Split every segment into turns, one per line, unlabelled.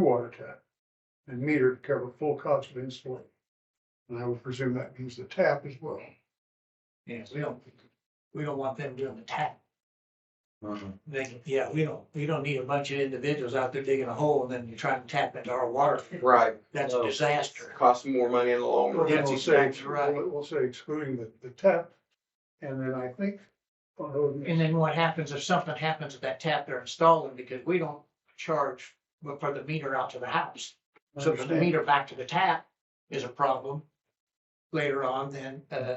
kilowatt attack and meter to cover full cost of installation. And I would presume that means the tap as well.
Yeah, we don't, we don't want them doing the tap.
Mhm.
They, yeah, we don't, we don't need a bunch of individuals out there digging a hole and then you try to tap into our water.
Right,
That's a
No.
disaster.
costs more money in the long
Well,
run.
then
That's
we'll say,
exactly right.
we'll we'll say excluding the, the tap. And then I think, oh, on those-
And then what happens if something happens at that tap they're installing, because we don't charge for the meter out to the house. So if the
Understand.
meter back to the tap is a problem later on, then, uh,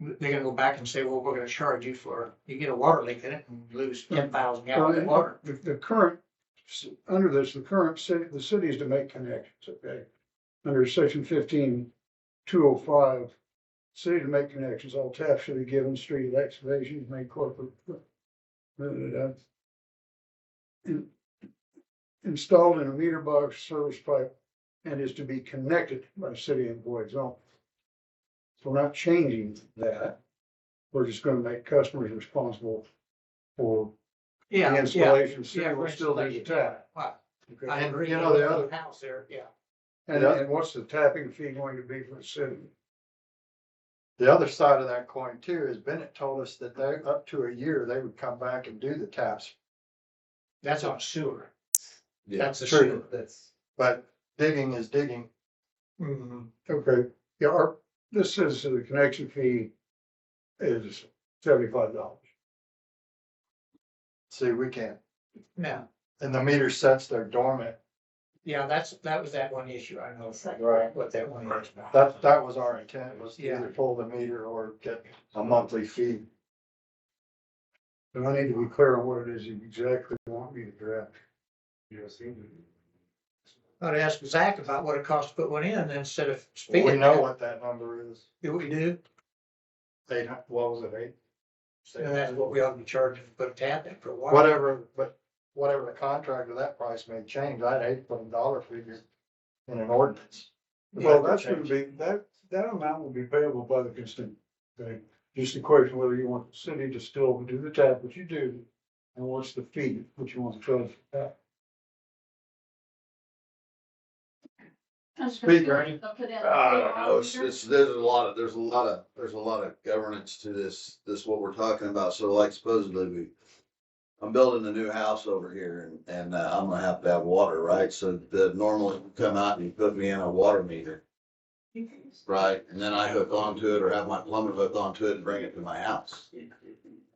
they're gonna go back and say, well, we're gonna charge you for, you get a water leak in it and lose ten thousand gallons of water.
the, the current, under this, the current city, the city is to make connections, okay? Under section fifteen, two oh five, city to make connections, all taps should be given, street excavations made corporate. uh, da, da, da, da. In- Installed in a meter box, service pipe, and is to be connected by city employees only. So we're not changing that. We're just gonna make customers responsible for
Yeah,
the
yeah,
installation
yeah,
still, will still
for
be the tap.
Wow,
okay?
I agree.
You know, the other,
House there, yeah.
and, and what's the tapping fee going to be for the city?
The other side of that coin too is Bennett told us that they, up to a year, they would come back and do the taps.
That's on sewer.
Yeah,
That's the
true.
sewer. That's.
But digging is digging.
Mm-hmm.
Okay, yeah, our, this is, the connection fee is seventy-five dollars.
See, we can't.
Now,
And the meter sets there dormant.
yeah, that's, that was that one issue. I know
Right.
what that one is about.
That, that was our intent, was to
Yeah.
either pull the meter or get a monthly fee.
And I need to be clear on what it is you exactly want me to draft. Yes.
I'd ask Zach about what it costs to put one in instead of
Well,
speeding.
We know what that number is.
Do we do?
Eight, hun- what was it, eight?
And that's what we ought to be charging to put a tap in for water.
Whatever, but whatever the contract of that price may change, I'd hate to put a dollar figure in an ordinance.
Well, that's gonna be, that, that amount will be payable by the consumer. okay? Just a question whether you want the city to still do the tap, which you do, and what's the fee, which you want to charge for that.
Speaker, any-
Uh, I don't know, Oh, it's, it's, there's a lot of, there's a lot of, there's a lot of governance to this, this what we're talking about, so like supposedly we. I'm building a new house over here and, and uh, I'm gonna have to have water, right, so the normally you come out and you put me in a water meter. Right, and then I hook onto it or have my plumber hook onto it and bring it to my house.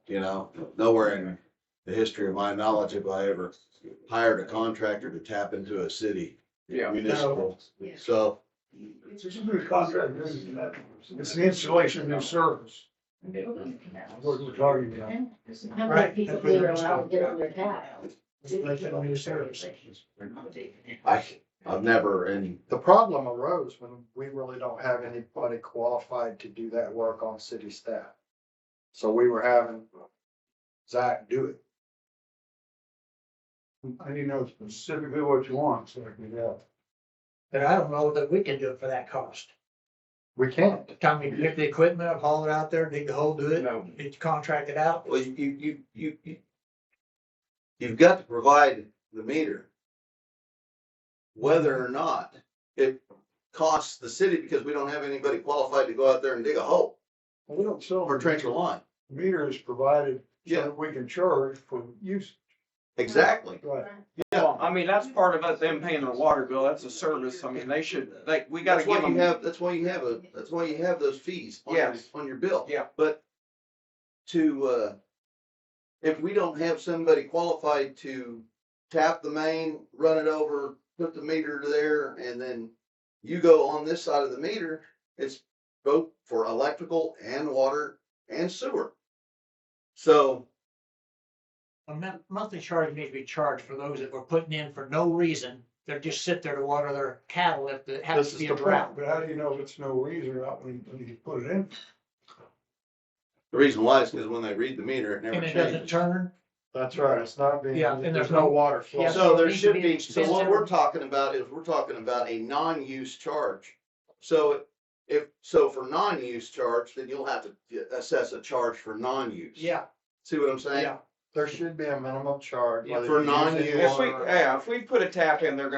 You know, nowhere in the history of my knowledge have I ever hired a contractor to tap into a city Yeah. municipal,
Yeah.
so.
It's a new contract, this is that. It's the installation of new service. What we're talking about.
How many people being allowed to get on their tap?
Like that on your service.
I, I've never, and
The problem arose when we really don't have anybody qualified to do that work on city staff. So we were having Zach do it.
I need to know specifically what you want, so I can uh, help.
But I don't know that we can do it for that cost.
We can't.
Time to get the equipment, up, haul it out there, dig the hole, do it, it's contracted out.
well, you, you, you, you, you've got to provide the meter. Whether or not it costs the city, because we don't have anybody qualified to go out there and dig a hole
We don't sell
or
our
trench a line.
meter is provided so
Yeah.
that we can charge for use.
Exactly.
Right.
Well, I mean, that's part of it, them paying their water bill, that's a service, I mean, they should, like, we gotta
That's why
give
you
them.
have, that's why you have a, that's why you have those fees on, your-
Yes.
on your bill.
Yeah.
But to, uh, if we don't have somebody qualified to tap the main, run it over, put the meter to there, and then you go on this side of the meter, it's both for electrical and water and sewer. So,
A mon- monthly charge needs to be charged for those that were putting in for no reason. They're just sit there to water their cattle if it
This
happens to
is
be a
the point.
drought.
But how do you know if it's no reason or not when when you put it in?
the reason why is because when they read the meter, it
And
never
it doesn't
changes.
turn,
That's right. It's not being,
Yeah, and
there's no water
Yeah, so
flow.
So
it
there
needs to
should
be
be, so what
expensive.
we're talking about is, we're talking about a non-use charge. So if, so for non-use charge, then you'll have to assess a charge for non-use.
yeah,
See what I'm saying?
yeah.
there should be a minimum charge.
Yeah,
whether
for
you use it
If we,
or-
yeah, if we put a tap in, they're gonna